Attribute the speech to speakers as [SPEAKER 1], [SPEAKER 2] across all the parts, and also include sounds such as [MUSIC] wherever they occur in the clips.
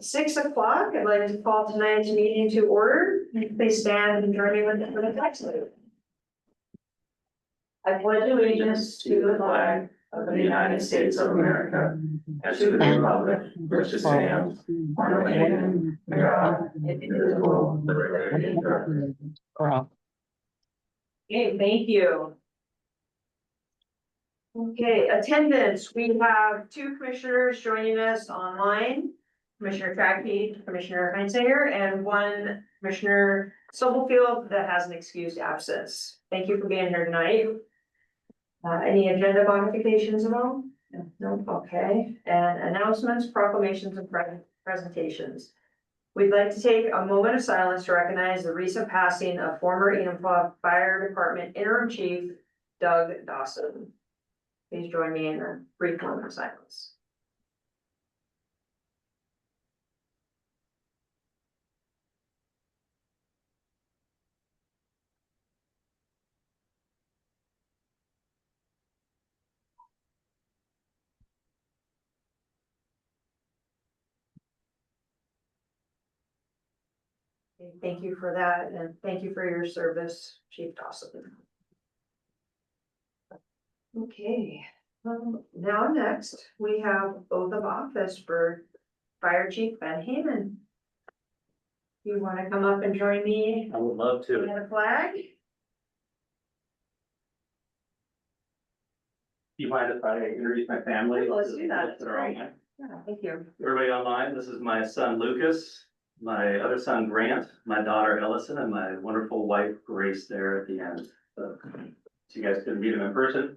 [SPEAKER 1] six o'clock, I'd like to call tonight's meeting to order. Please stand and join me with with the flag salute.
[SPEAKER 2] I pledge allegiance to the flag of the United States of America and to the republic for which it stands, one nation, under God, indivisible, with liberty and justice.
[SPEAKER 1] Okay, thank you. Okay, attendance, we have two commissioners joining us online. Commissioner Trachy, Commissioner Heinzinger, and one Commissioner Sobelfield that has an excused absence. Thank you for being here tonight. Uh, any agenda modifications at all? No, okay, and announcements, proclamations, and pre- presentations. We'd like to take a moment of silence to recognize the recent passing of former Enumclaw Fire Department interim chief Doug Dawson. Please join me in a brief moment of silence. Okay, Thank you for that and thank you for your service, Chief Dawson. Okay, um, now next, we have oath of office for Fire Chief Van Haman. You wanna come up and join me
[SPEAKER 3] I would love
[SPEAKER 1] in
[SPEAKER 3] to.
[SPEAKER 1] the flag?
[SPEAKER 3] Do you mind if I introduce my family?
[SPEAKER 1] Let's do that.
[SPEAKER 3] Those are online.
[SPEAKER 1] Yeah, thank you.
[SPEAKER 3] Everybody online, this is my son Lucas, my other son Grant, my daughter Ellison, and my wonderful wife Grace there at the end. So so you guys can meet him in person.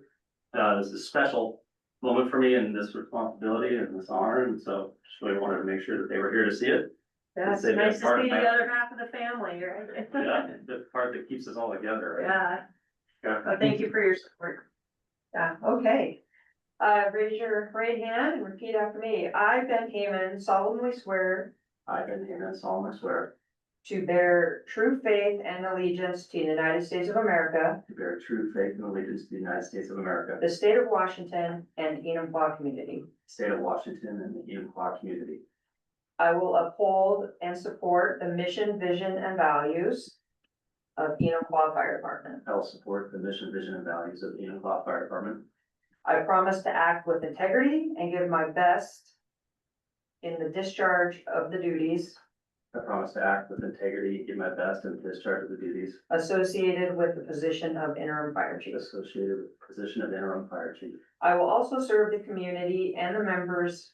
[SPEAKER 3] Uh, this is a special moment for me and this responsibility and this honor, and so just really wanted to make sure that they were here to see
[SPEAKER 2] [LAUGHS]
[SPEAKER 3] it.
[SPEAKER 1] That's
[SPEAKER 3] They've been
[SPEAKER 1] nice to
[SPEAKER 3] part of
[SPEAKER 1] see the
[SPEAKER 3] my-
[SPEAKER 1] other half of the family, right?
[SPEAKER 3] Yeah, the part that keeps us all together. right?
[SPEAKER 1] [LAUGHS] Yeah,
[SPEAKER 3] Yeah.
[SPEAKER 1] well, thank you for your support. Yeah, okay. Uh, raise your right hand and repeat after me. I, Ben Haman, solemnly swear
[SPEAKER 3] I, Ben Hammond, solemnly swear
[SPEAKER 1] to bear true faith and allegiance to the United States of America,
[SPEAKER 3] to bear true faith and allegiance to the United States of America,
[SPEAKER 1] the state of Washington, and Enumclaw community.
[SPEAKER 3] state of Washington, and the Unicoi community.
[SPEAKER 1] I will uphold and support the mission, vision, and values of Enumclaw Fire Department.
[SPEAKER 3] I will support the mission, vision, and values of the Unicoi Fire Department.
[SPEAKER 1] I promise to act with integrity and give my best in the discharge of the duties
[SPEAKER 3] I promise to act with integrity, give my best, and discharge of the duties
[SPEAKER 1] associated with the position of interim fire chief.
[SPEAKER 3] associated with the position of interim fire chief.
[SPEAKER 1] I will also serve the community and the members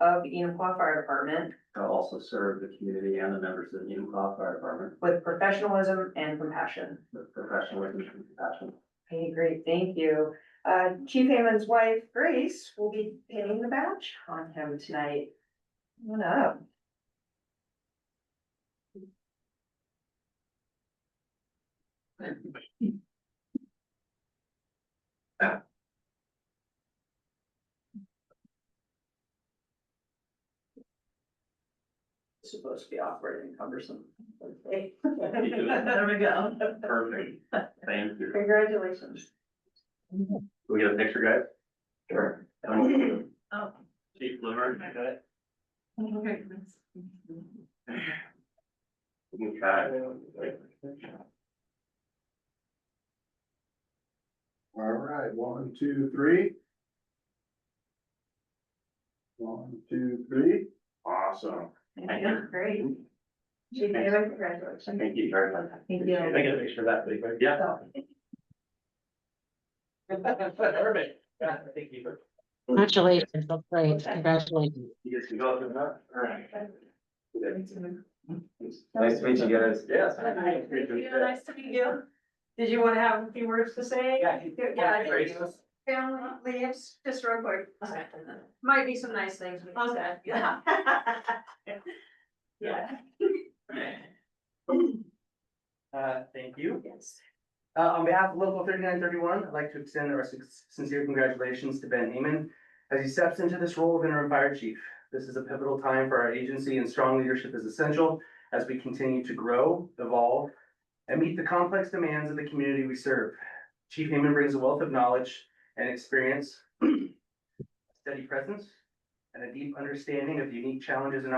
[SPEAKER 1] of Enumclaw Fire Department
[SPEAKER 3] I will also serve the community and the members of the Unicoi Fire Department
[SPEAKER 1] with professionalism and compassion.
[SPEAKER 3] with professionalism and compassion.
[SPEAKER 1] Okay, great, thank you. Uh, Chief Hammond's wife, Grace, will be pinning the badge on him tonight. Come on up. It's Supposed to be awkward and cumbersome. Okay. [LAUGHS] There we go.
[SPEAKER 3] [LAUGHS] Perfect. Thank you.
[SPEAKER 1] Congratulations.
[SPEAKER 3] Can we get a picture, guys? Sure.
[SPEAKER 1] Oh.
[SPEAKER 3] Chief Blumer.
[SPEAKER 1] Okay.
[SPEAKER 3] Okay.
[SPEAKER 4] All right, one, two, three. One, two, three, awesome.
[SPEAKER 3] Thank you.
[SPEAKER 1] Great. Chief Hammond, congratulations.
[SPEAKER 3] Thank you very much.
[SPEAKER 1] Thank you.
[SPEAKER 3] I gotta make sure that, big, right? yeah. [LAUGHS] Perfect. Yeah, thank you.
[SPEAKER 5] Congratulations, that's great, congratulations.
[SPEAKER 3] You guys can go up and up. All right.
[SPEAKER 6] Nice to meet you guys.
[SPEAKER 3] Yes.
[SPEAKER 1] Nice to meet you. Did you want to have a few words to say?
[SPEAKER 3] Yeah.
[SPEAKER 1] Yeah, I think you. Family leaves, just real quick. Might be some nice things. we can say. Yeah. [LAUGHS] Yeah,
[SPEAKER 6] Uh, thank you.
[SPEAKER 1] yes.
[SPEAKER 6] Uh, on behalf of Local thirty-nine thirty-one, I'd like to extend our sin- sincere congratulations to Ben Heyman as he steps into this role of interim fire chief. This is a pivotal time for our agency and strong leadership is essential as we continue to grow, evolve, and meet the complex demands of the community we serve. Chief Heyman brings a wealth of knowledge and [CLEARS THROAT] experience, steady presence, and a deep understanding of the unique challenges and